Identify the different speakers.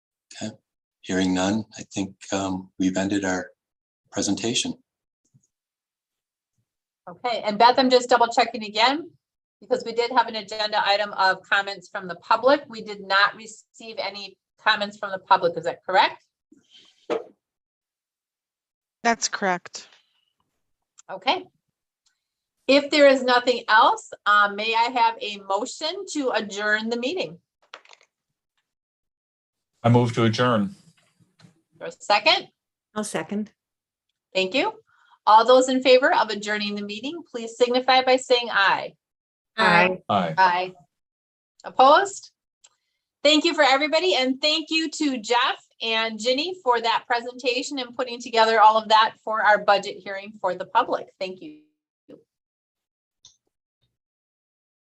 Speaker 1: Okay. Hearing none, I think um, we've ended our presentation.
Speaker 2: Okay, and Beth, I'm just double checking again, because we did have an agenda item of comments from the public. We did not receive any comments from the public, is that correct?
Speaker 3: That's correct.
Speaker 2: Okay. If there is nothing else, um, may I have a motion to adjourn the meeting?
Speaker 4: I move to adjourn.
Speaker 2: For a second,
Speaker 5: I'll second.
Speaker 2: thank you. All those in favor of adjourning the meeting, please signify by saying aye.
Speaker 5: Aye.
Speaker 4: Aye.
Speaker 2: Aye. Opposed? Thank you for everybody and thank you to Jeff and Ginny for that presentation and putting together all of that for our budget hearing for the public. Thank you.